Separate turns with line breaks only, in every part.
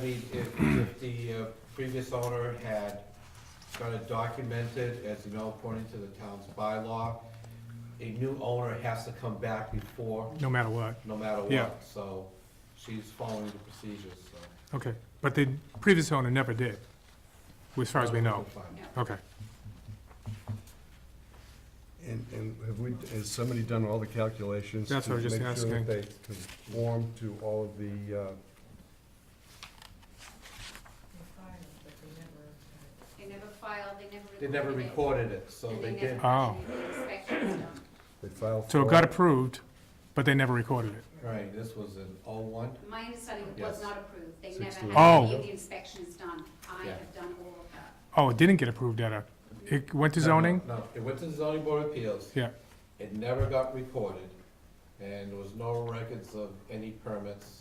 I mean, if, if the uh, previous owner had kind of documented, as you know, according to the town's bylaw, a new owner has to come back before,
no matter what.
no matter
Yeah.
what, so she's following the procedures, so.
Okay, but the previous owner never did, as far as we know. Okay,
And, and have we, has somebody done all the calculations?
That's what I was
to
just asking.
Make sure that they conform to all of the, uh,
They never filed, they never recorded
They never
it,
recorded it, so
and
they
never
did,
Oh.
actually did inspections done.
they file.
so it
for-
got approved, but they never recorded it.
right, this was in oh oh-one,
My understanding
Yes.
was not approved, they never
Sixteen.
had any
Oh.
of the inspections done. I
Yeah.
have done all of that.
Oh, it didn't get approved at a, it went to zoning?
No, no, it went to the zoning board of appeals.
Yeah.
It never got recorded, and there was no records of any permits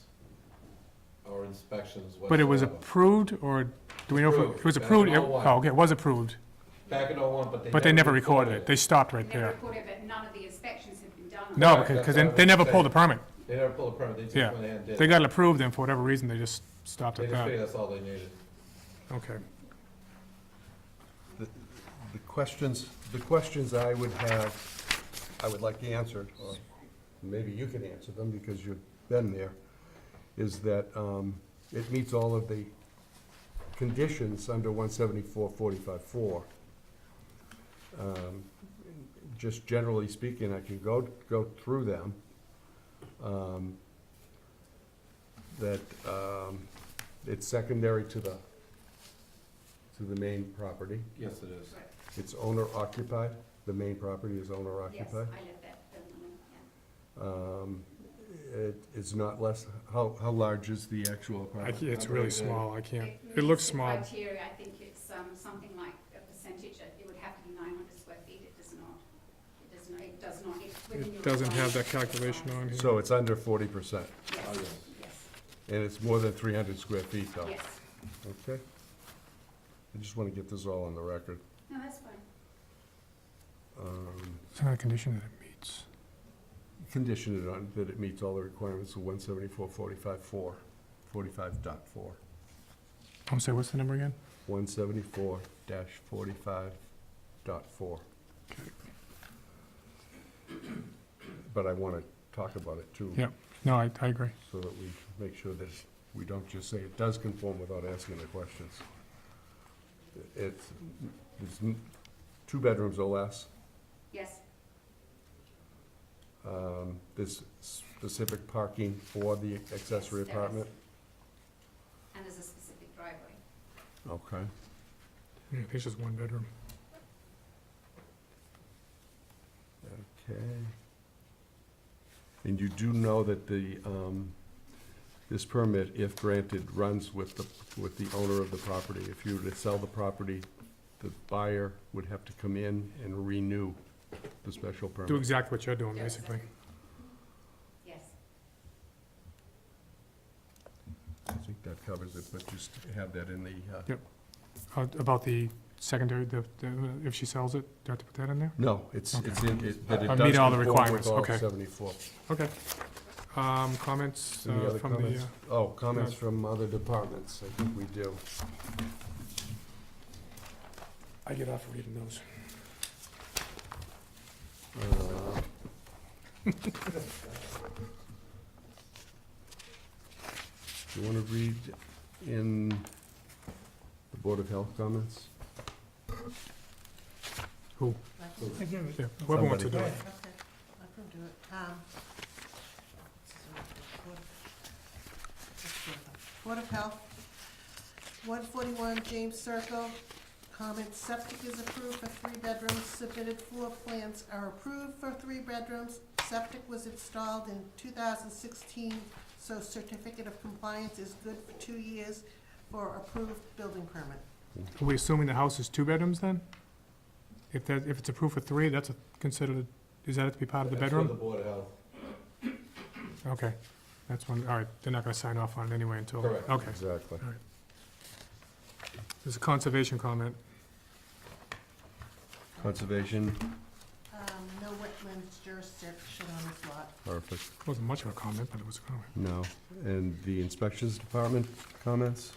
or inspections whatsoever.
But it was approved, or, do we know if it- it was
Approved.
approved?
That's all I
Oh, okay, it was approved,
Back in oh-one, but they.
but they never recorded it. They stopped
They
right
never
there.
recorded, but none of the inspections have been done. on
No,
it.
because 'cause they- they never pulled a permit.
They never pulled a permit, they just
Yeah.
went ahead and did.
They
it.
got it approved, and for whatever reason, they just stopped
They
at
just figured
that.
that's all they needed.
Okay.
The questions, the questions I would have, I would like answered, or maybe you can answer them because you've been there, is that um, it meets all of the conditions under 174-45-4. Um, Just generally speaking, I can go, go through them. um, That um, it's secondary to the, to the main property.
Yes, it is.
It's owner occupied, the main property is owner
Yes, I
occupied.
let that building, alone, yeah.
Um, It is not less, how, how large is the actual
I
apartment?
c it's really small, I can't, it
meets
looks
the
small.
Criteria, I think it's, um, something like a percentage, it it would have to be nine hundred square feet, it does not. It does not, it does not, it's within your.
It doesn't have that
requirements.
calculation on here.
So it's under forty percent,
Oh,
Yes,
yes.
yes,
and it's more than three hundred square feet though,
yes,
okay? I just want to get this all on the record.
no, that's fine.
Um,
It's not a condition that it meets.
Conditioned on that it meets all the requirements of 174-45-4, 45 dot four,
I'm sorry, what's the number again?
one seventy-four forty-five dot four. But I want to talk about it too.
Yeah. No, I, I agree.
so that we make sure that we don't just say it does conform without asking the questions. It's, it's n- two bedrooms or less.
Yes,
Um, There's specific parking for the accessory
Yes, there
apartment.
and there's a specific driveway.
Okay.
Yeah, I think it's just one bedroom.
Okay. And you do know that the, um, this permit, if granted, runs with the, with the owner of the property. If you were to sell the property, the buyer would have to come in and renew the special
Do
permit.
exactly what you're doing,
Yes.
basically.
Yes,
I think that covers it, but just have that in the, uh,
Yep. Uh, About the secondary, the, the- if she sells it, do I have to put that in there?
no, it's,
Okay.
it's in, it- that it
Uh,
does
meet all the
conform with
requirements,
all
okay.
74.
Okay. Um, comments
Any
uh,
other
from the,
comments?
uh,
Oh, comments
yeah.
from other departments, I think we do.
I get off reading those.
Uh, Do you want to read in the Board of Health comments?
Who?
Again,
Yeah, Whoever wants to do
right,
it.
okay, I can do it, um. Board of Health, one forty-one James Circle, comment, septic is approved for three bedrooms, submitted floor plans are approved for three bedrooms. Septic was installed in two thousand sixteen, so certificate of compliance is good for two years for approved building permit.
Are we assuming the house is two bedrooms then? If that, if it's approved for three, that's a- considered, a- is that have to be part of the
That's for
bedroom?
the Board of Health.
Okay, that's one, all right, they're not gonna sign off on it anyway until,
Correct.
okay.
Exactly.
There's a conservation comment.
Conservation,
Um, no wet selectmen's jurisdiction on this lot.
Perfect.
Wasn't much of a comment, but it was a comment.
No. And the inspections department comments?